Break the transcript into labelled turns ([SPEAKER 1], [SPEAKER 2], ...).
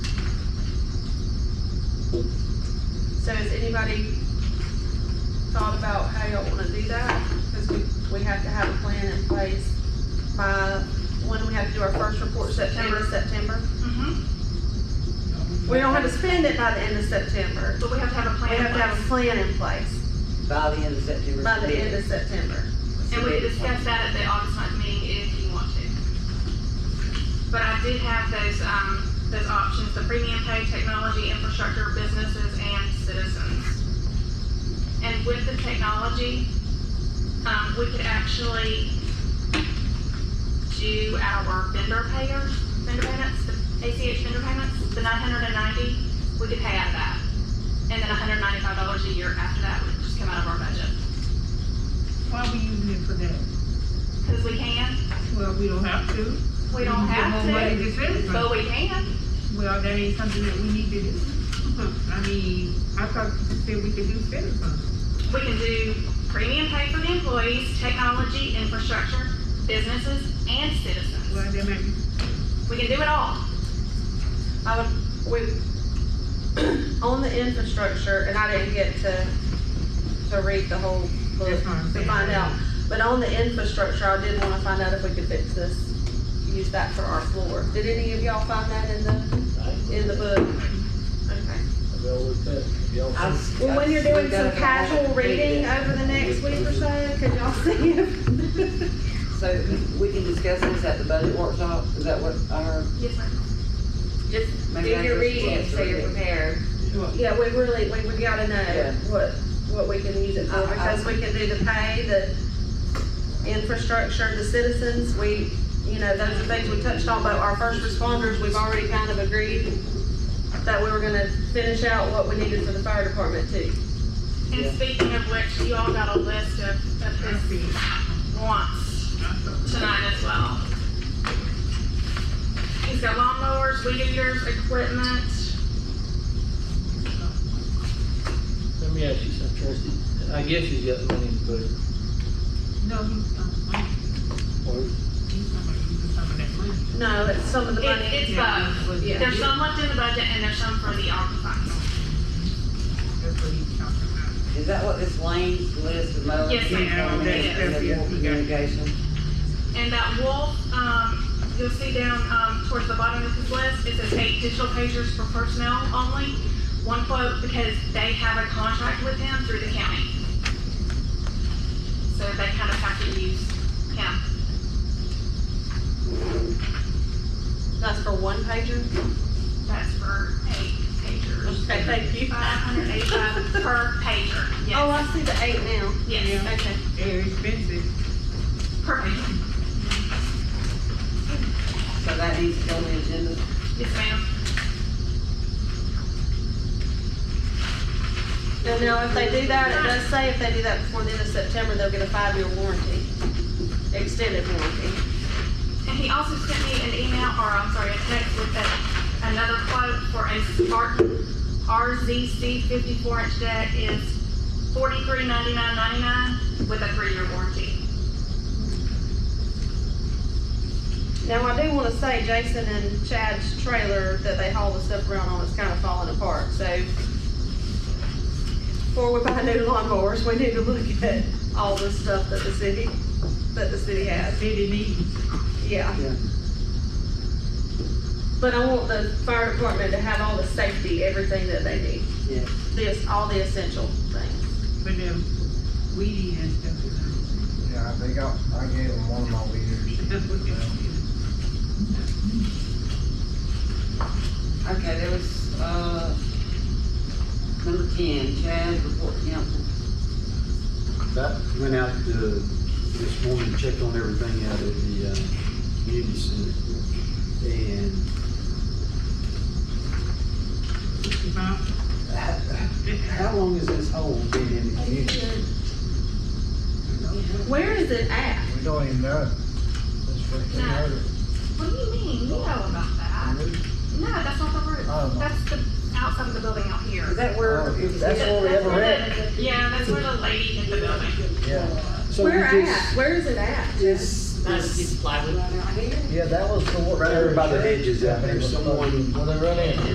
[SPEAKER 1] So has anybody thought about how y'all wanna do that? Cause we, we have to have a plan in place by, when we have to do our first report, September, September.
[SPEAKER 2] Mm-hmm,
[SPEAKER 1] We don't have to spend it by the end of September.
[SPEAKER 2] but we have to have a
[SPEAKER 1] We
[SPEAKER 2] plan.
[SPEAKER 1] have to have a
[SPEAKER 2] in
[SPEAKER 1] plan in place
[SPEAKER 3] By the end of September.
[SPEAKER 1] by the end of September.
[SPEAKER 2] place. And we can discuss that at the August ninth meeting if you want to. But I did have those, um, those options, the premium pay, technology, infrastructure, businesses, and citizens. And with the technology, um, we could actually do our vendor payers, vendor payments, the ACH vendor payments, the nine hundred and ninety, we could pay out of that. And then hundred and ninety-five dollars a year after that would just come out of our budget.
[SPEAKER 4] Why are we using it for that?
[SPEAKER 2] Because we can,
[SPEAKER 4] Well, we don't have to.
[SPEAKER 2] we don't have
[SPEAKER 4] More money
[SPEAKER 2] to,
[SPEAKER 4] to spend, but,
[SPEAKER 2] but we can.
[SPEAKER 4] well, that ain't something that we need to do. I mean, I thought you said we could do spending funds.
[SPEAKER 2] We can do premium pay for the employees, technology, infrastructure, businesses, and citizens.
[SPEAKER 4] Well, that might be,
[SPEAKER 2] We can do it all.
[SPEAKER 1] I would, we, on the infrastructure, and I didn't get to, to read the whole book
[SPEAKER 4] that's what I'm
[SPEAKER 1] to
[SPEAKER 4] saying.
[SPEAKER 1] find out. But on the infrastructure, I did wanna find out if we could fix this, use that for our floor. Did any of y'all find that in the, in the book? Okay. Well, when you're doing some casual reading uh, over the next week or so, could y'all see if?
[SPEAKER 3] So we can discuss this at the budget workshop, is that what our?
[SPEAKER 2] Yes, ma'am.
[SPEAKER 5] Just do
[SPEAKER 3] Maybe I
[SPEAKER 5] your
[SPEAKER 3] just
[SPEAKER 5] reading
[SPEAKER 3] want to
[SPEAKER 5] so you're
[SPEAKER 3] read it.
[SPEAKER 5] prepared.
[SPEAKER 1] Yeah, we really, we, we gotta know
[SPEAKER 3] Yeah.
[SPEAKER 1] what, what we can use it for,
[SPEAKER 3] I- I-
[SPEAKER 1] because we can do the pay, the infrastructure, the citizens, we, you know, those are things we touched on, but our first responders, we've already kind of agreed that we were gonna finish out what we needed for the fire department too.
[SPEAKER 2] And
[SPEAKER 3] Yeah.
[SPEAKER 2] speaking of which, you all got a list of, of
[SPEAKER 4] I
[SPEAKER 2] his
[SPEAKER 4] see.
[SPEAKER 2] wants tonight as well. He's got lawnmowers, weed eaters, equipment.
[SPEAKER 4] Uh,
[SPEAKER 6] Let me ask you something, Tracy. I guess he's got the money to put it,
[SPEAKER 4] No, he's, um,
[SPEAKER 6] or
[SPEAKER 4] he's talking about using some of that money.
[SPEAKER 1] No, it's some of the
[SPEAKER 2] It,
[SPEAKER 1] money.
[SPEAKER 2] it's both.
[SPEAKER 1] Yeah.
[SPEAKER 2] There's some left in the budget and there's some for the occupies.
[SPEAKER 4] That's what he's talking about.
[SPEAKER 3] Is that what this Lane's list of mowing?
[SPEAKER 2] Yes, ma'am.
[SPEAKER 3] And
[SPEAKER 2] Yes.
[SPEAKER 3] the Communication,
[SPEAKER 2] And that wolf, um, you'll see down, um, towards the bottom of his list, it says eight digital pagers for personnel only. One quote, because they have a contract with him through the county. So they kind of have to use him.
[SPEAKER 1] That's for one pager?
[SPEAKER 2] That's for eight pagers.
[SPEAKER 1] Okay, thank you.
[SPEAKER 2] Five hundred eighty-five per pager,
[SPEAKER 1] Oh,
[SPEAKER 2] yes,
[SPEAKER 1] I see the eight now.
[SPEAKER 2] yes,
[SPEAKER 1] Okay.
[SPEAKER 4] They're expensive.
[SPEAKER 2] per pager.
[SPEAKER 3] so that needs to go on the agenda.
[SPEAKER 2] Yes, ma'am.
[SPEAKER 1] And now if they do that, it does say if they do that before the end of September, they'll get a five-year warranty, extended warranty.
[SPEAKER 2] And he also sent me an email, or I'm sorry, a text with a, another quote for a Spartan RZC fifty-four inch deck is forty-three ninety-nine ninety-nine with a three-year warranty.
[SPEAKER 1] Now, I do wanna say Jason and Chad's trailer that they haul the stuff around on is kinda falling apart, so before we buy new lawnmowers, we need to look at all the stuff that the city, that the city has,
[SPEAKER 4] City needs.
[SPEAKER 1] yeah.
[SPEAKER 3] Yeah.
[SPEAKER 1] But I want the fire department to have all the safety, everything that they need.
[SPEAKER 3] Yes.
[SPEAKER 1] This, all the essential things.
[SPEAKER 4] But them weedy and stuff is on.
[SPEAKER 7] Yeah, they got, I gave them one of my
[SPEAKER 4] That's what they're
[SPEAKER 7] leaders.
[SPEAKER 4] doing.
[SPEAKER 3] Okay, there was, uh, number ten, Chad, report to council.
[SPEAKER 8] That went out uh, this morning, checked on everything out at the uh, community center. And
[SPEAKER 4] It's about-
[SPEAKER 8] h- how long has this hole been in the community?
[SPEAKER 1] Where is it at?
[SPEAKER 7] We don't even know. That's what they
[SPEAKER 2] No.
[SPEAKER 7] heard.
[SPEAKER 2] What do you mean? You know about that. No, that's not the roof.
[SPEAKER 7] Oh.
[SPEAKER 2] That's the outside of the building out here.
[SPEAKER 3] Is that where,
[SPEAKER 7] Oh.
[SPEAKER 3] is that where we
[SPEAKER 2] That's
[SPEAKER 3] ever
[SPEAKER 2] where
[SPEAKER 3] read?
[SPEAKER 2] the- Yeah, that's where the lady hit the building.
[SPEAKER 7] Yeah,
[SPEAKER 8] So we
[SPEAKER 1] Where
[SPEAKER 8] just-
[SPEAKER 1] at? Where is it at?
[SPEAKER 8] It's, it's
[SPEAKER 3] Right out here?
[SPEAKER 7] yeah, that was the.
[SPEAKER 8] right over by the hedges out there, someone
[SPEAKER 7] Well, they run in.